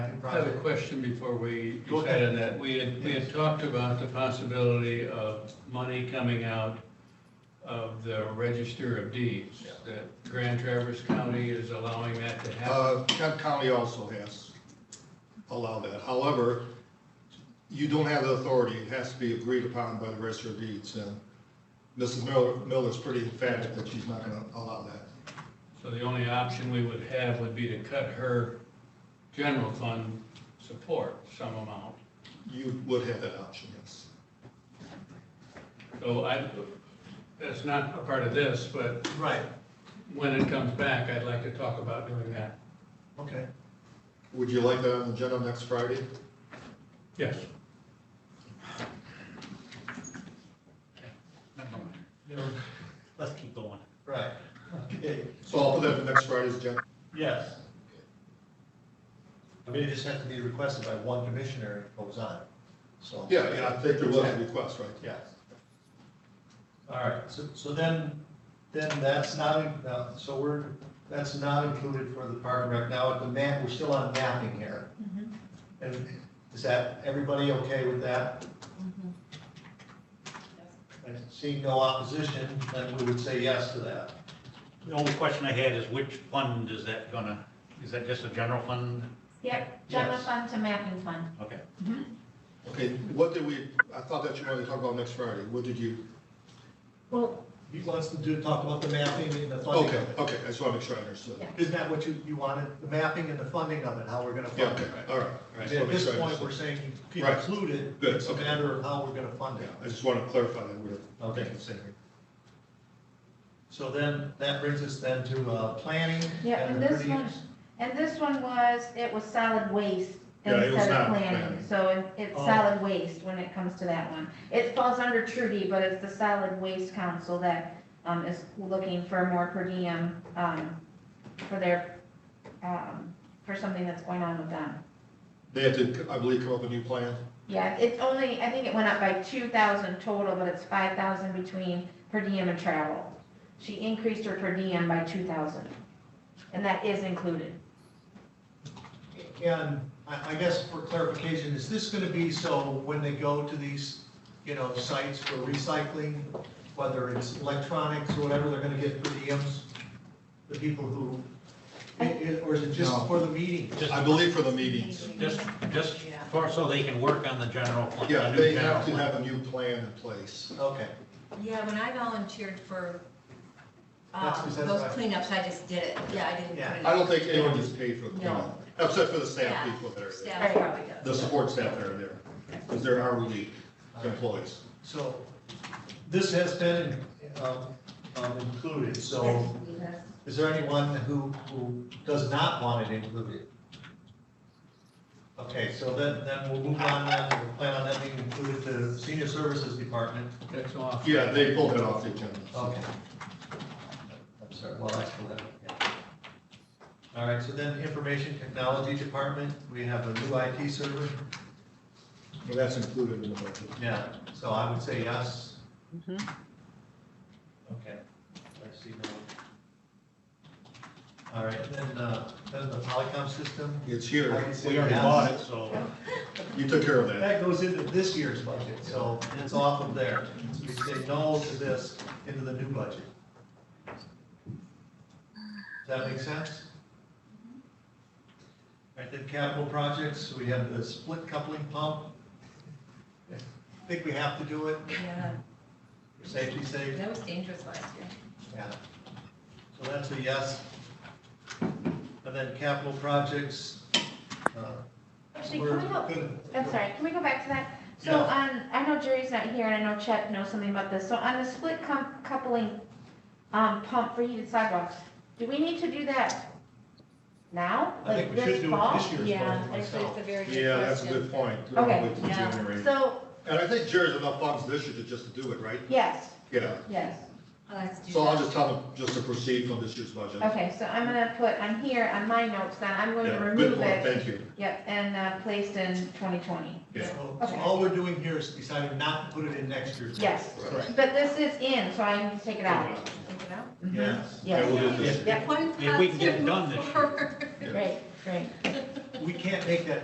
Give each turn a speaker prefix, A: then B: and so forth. A: I have a
B: project.
A: question before we
B: Go
A: decide on
B: ahead.
A: that. We had, we had talked about the possibility of money coming out of the Register of Deeds. That Grand Traverse County is allowing that to happen.
B: Uh, Kent County also has allowed that. However, you don't have the authority. It has to be agreed upon by the register of deeds. And Mrs. Miller, Miller's pretty emphatic that she's not gonna allow that.
A: So the only option we would have would be to cut her general fund support some amount.
B: You would have that option, yes.
A: So I, that's not a part of this, but
C: Right,
A: when it comes back, I'd like to talk about doing that.
C: okay.
B: Would you like that on the agenda next Friday?
A: Yes.
D: Let's keep going.
C: Right, okay,
B: So I'll put that in next Friday's agenda.
C: yes. I mean, it just has to be requested by one commissioner who goes on, so.
B: Yeah, yeah, I think there was a request, right?
C: Yes. All right, so, so then, then that's not, in- now, so we're, that's not included for the park and rec. Now, the map, we're still on mapping here. And is that, everybody okay with that? And seeing no opposition, then we would say yes to that.
D: The only question I had is which fund is that gonna, is that just a general fund?
E: Yep, general
C: Yes.
E: fund to mapping fund.
D: Okay.
B: Okay, what did we, I thought that you wanted to talk about next Friday. What did you?
C: Well. He wants to do, talk about the mapping and the funding
B: Okay,
C: of it.
B: okay, I just want to make sure I understood.
E: Yeah.
C: Isn't that what you, you wanted, the mapping and the funding of it, how we're gonna
B: Yeah,
C: fund
B: okay,
C: it?
B: all right. I
C: At
B: just wanna make
C: this
B: sure I
C: point,
B: understood.
C: we're saying you
B: Right.
C: include it.
B: Good,
C: It's a
B: okay.
C: matter of how we're gonna fund it.
B: Yeah, I just want to clarify that we're.
C: Okay.
B: thinking the same here.
C: So then, that brings us then to, uh, planning.
E: Yeah, and this one, and this one was, it was solid waste
B: Yeah, it was
E: instead of
B: not
E: planning.
B: planning.
E: So it- it's
C: Oh.
E: solid waste when it comes to that one. It falls under Trudy, but it's the solid waste council that um, is looking for more per diem um, for their, um, for something that's going on with them.
B: They have to, I believe, come up with a new plan.
E: Yeah, it's only, I think it went up by two thousand total, but it's five thousand between per diem and travel. She increased her per diem by two thousand, and that is included.
C: And I, I guess for clarification, is this gonna be so when they go to these, you know, sites for recycling, whether it's electronics or whatever, they're gonna get per diems? The people who, i- i- or is it just
B: No.
C: for the meeting?
D: Just,
B: I believe for the meetings.
D: just, just for, so they can work on the general fund. the
B: Yeah,
D: new
B: they
D: general
B: have to
D: fund.
B: have a new plan in place.
C: Okay,
F: Yeah, when I volunteered for,
C: That's
F: um,
C: 'cause that's
F: those
C: what I-
F: cleanups, I just did it, yeah, I didn't.
C: Yeah.
F: put it
B: I
F: in.
B: don't think anyone gets paid for the plan,
F: No.
B: except for the staff
F: Yeah,
B: people that are there,
F: Staff probably does.
B: the support staff that are there, because they're hourly employees.
C: so this has been, um, um, included, so is there anyone who, who does not want it included? Okay, so then, then we'll move on, now to the plan on that being included to Senior Services Department.
A: That's off.
B: Yeah, they pulled that off the agenda.
C: Okay. I'm sorry, well, that's for that, yeah. All right, so then Information Technology Department, we have a new IT server.
B: Well, that's included in the budget.
C: Yeah, so I would say yes. Okay, I see no. All right, then, uh, then the Polycom system.
B: It's
C: I
B: here.
C: can say
D: We already
C: yes.
D: bought it, so.
B: You took care of that.
C: That goes into this year's budget, so it's off of there. So We say no to this into the new budget. Does that make sense? All right, then capital projects, we have the split coupling pump. I Think we have to do it,
F: Yeah,
C: for safety sake?
F: that was dangerous last year.
C: Yeah. So that's a yes. And then capital projects. uh,
E: Actually,
C: we're
E: can we help,
C: good.
E: I'm sorry, can we go back to that? So
C: Yeah.
E: on, I know Jerry's not here, and I know Chet knows something about this, so on the split com- coupling, um, pump for heated sidewalks, do we need to do that now?
C: I think
E: Like
C: we should do it
E: fall?
C: this year's
F: Yeah,
C: budget
F: actually,
C: myself.
F: it's a very good question.
B: Yeah, that's a good point. We don't
E: Okay.
B: wait till
F: Yeah.
B: January.
E: So,
B: And I think Jerry's enough funds this year to just to do it, right?
E: yes,
B: Yeah.
E: yes,
F: Let's do
B: So I'll
F: that.
B: just tell them just to proceed from this year's budget.
E: okay, so I'm gonna put on here, on my notes, then I'm going to
B: Yeah, Good
E: remove
B: point,
E: it,
B: thank you.
E: yep, and, uh, placed in twenty twenty,
B: Yeah.
C: So so
E: Okay.
C: all we're doing here is deciding not to put it in next year's. budget.
E: yes.
B: Right.
E: But this is in, so I need to take it out.
F: Think it out.
E: Mhm.
C: Yes.
B: Yeah,
E: Yes,
B: we'll do this.
E: Yep.
F: One
D: If we can get it
F: positive
D: done this year.
F: forward.
B: Yeah.
E: great, great.
C: We can't make that